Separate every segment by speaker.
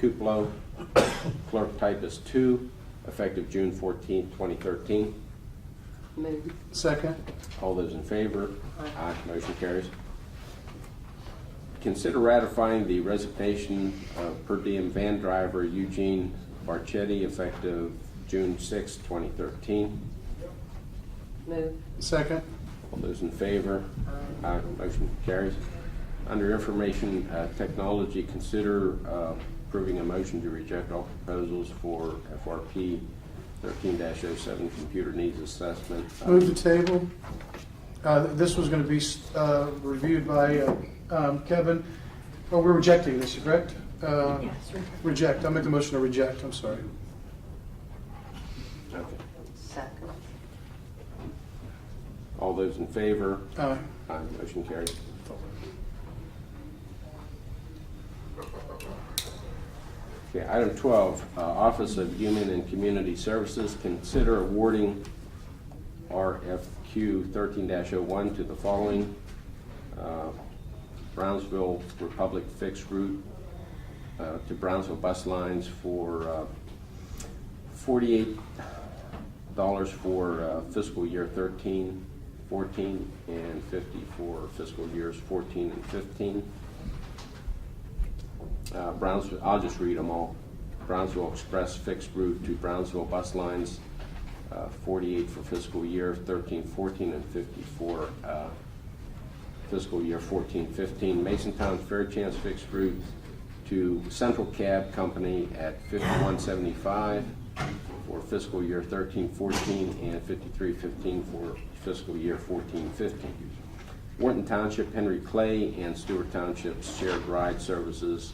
Speaker 1: Kuplo, clerk typist two, effective June 14, 2013.
Speaker 2: Move.
Speaker 3: Second.
Speaker 1: All those in favor?
Speaker 2: Aye.
Speaker 1: Motion carries. Consider ratifying the resignation of per diem van driver Eugene Barchetti effective June 6, 2013.
Speaker 2: Move.
Speaker 3: Second.
Speaker 1: All those in favor? Aye. Motion carries. Under Information uh, Technology, consider uh, approving a motion to reject all proposals for FRP 13-07 Computer Needs Assessment.
Speaker 3: Move the table. Uh, This was going to be uh, reviewed by uh, um, Kevin. Oh, we're rejecting this, correct? Uh,
Speaker 2: Yes.
Speaker 3: Reject. I'll make the motion to reject. I'm sorry.
Speaker 1: Okay.
Speaker 2: Second.
Speaker 1: All those in favor?
Speaker 3: Aye.
Speaker 1: Aye. Motion carries. Okay, item 12, uh, Office of Human and Community Services, consider awarding RFQ 13-01 to the following: uh, Brownsville Republic Fixed Route uh, to Brownsville Bus Lines for uh, $48 for uh, fiscal year 13, 14, and 50 for fiscal years 14 and 15. Uh, Brownsville, I'll just read them all. Brownsville Express fixed route to Brownsville bus lines, uh, 48 for fiscal year 13, 14, and 54 uh, fiscal year 14, 15. Masontown Fairchance fixed route to Central Cab Company at 5175 for fiscal year 13, 14, and 53, 15 for fiscal year 14, 15. Wharton Township, Henry Clay, and Stewart Township's shared ride services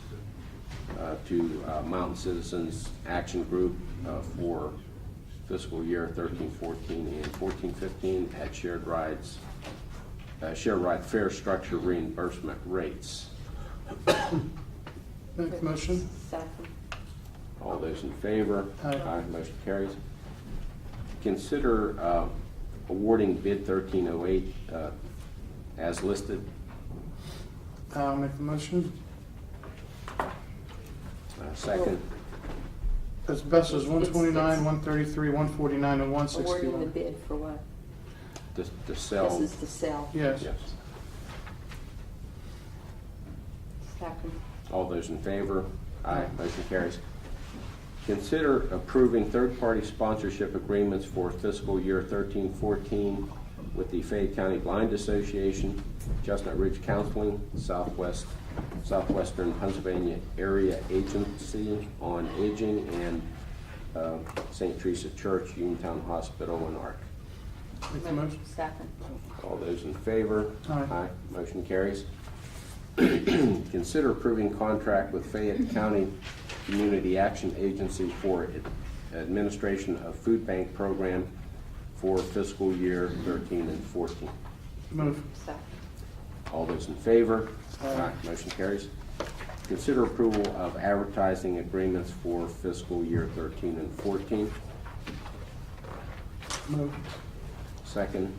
Speaker 1: uh, to uh, Mountain Citizens Action Group uh, for fiscal year 13, 14, and 14, 15 at shared rides, uh, shared ride fare structure reimbursement rates.
Speaker 3: Make the motion.
Speaker 2: Second.
Speaker 1: All those in favor?
Speaker 3: Aye.
Speaker 1: Motion carries. Consider uh, awarding bid 1308 uh, as listed.
Speaker 3: I'll make the motion.
Speaker 1: Uh, Second.
Speaker 3: That's best as 129, 133, 149, and
Speaker 2: Awarding the
Speaker 3: 161.
Speaker 2: bid for what?
Speaker 1: to to sell.
Speaker 2: This is the sell.
Speaker 3: Yes.
Speaker 1: Yes.
Speaker 2: Second.
Speaker 1: All those in favor?
Speaker 3: Aye.
Speaker 1: Motion carries. Consider approving third-party sponsorship agreements for fiscal year 13-14 with the Fayette County Blind Association, Chestnut Ridge Counseling, Southwest, Southwestern Pennsylvania Area Agency on Aging, and uh, St. Teresa Church, Uniontown Hospital, and ARC.
Speaker 3: Make the motion.
Speaker 2: Second.
Speaker 1: All those in favor?
Speaker 3: Aye.
Speaker 1: Motion carries. Consider approving contract with Fayette County Community Action Agency for ad- administration of food bank program for fiscal year 13 and 14.
Speaker 3: Move.
Speaker 2: Second.
Speaker 1: All those in favor?
Speaker 3: Aye.
Speaker 1: Motion carries. Consider approval of advertising agreements for fiscal year 13 and 14.
Speaker 3: Move.
Speaker 1: Second,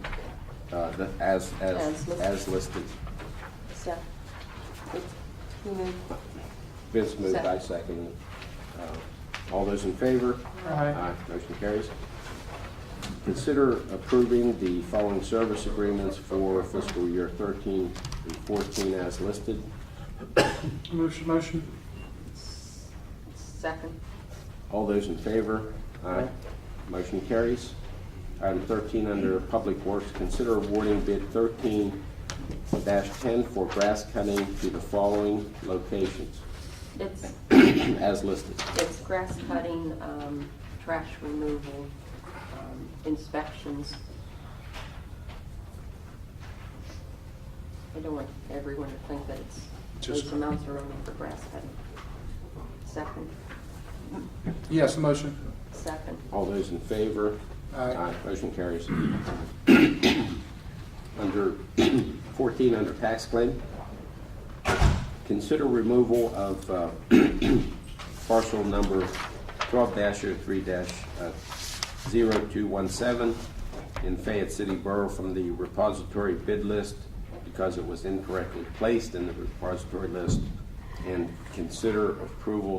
Speaker 1: uh, the- as,
Speaker 2: As
Speaker 1: as,
Speaker 2: listed.
Speaker 1: as listed.
Speaker 2: Second. Who moved?
Speaker 1: Vince moved, I
Speaker 2: Second.
Speaker 1: second. Uh, All those in favor?
Speaker 3: Aye.
Speaker 1: Motion carries. Consider approving the following service agreements for fiscal year 13 and 14 as listed.
Speaker 3: Motion, motion.
Speaker 2: Second.
Speaker 1: All those in favor?
Speaker 3: Aye.
Speaker 1: Motion carries. Item 13, under Public Works, consider awarding bid 13-10 for grass cutting to the following locations
Speaker 2: It's,
Speaker 1: as listed.
Speaker 2: it's grass cutting, um, trash removal, um, inspections. I don't want everyone to think that it's,
Speaker 3: Just-
Speaker 2: those amounts are only for grass cutting. Second.
Speaker 3: Yes, motion.
Speaker 2: Second.
Speaker 1: All those in favor?
Speaker 3: Aye.
Speaker 1: Motion carries. Under 14, under tax claim, consider removal of uh, parcel number uh, 12-03-0217 in Fayette City Borough from the repository bid list because it was incorrectly placed in the repository list, and consider approval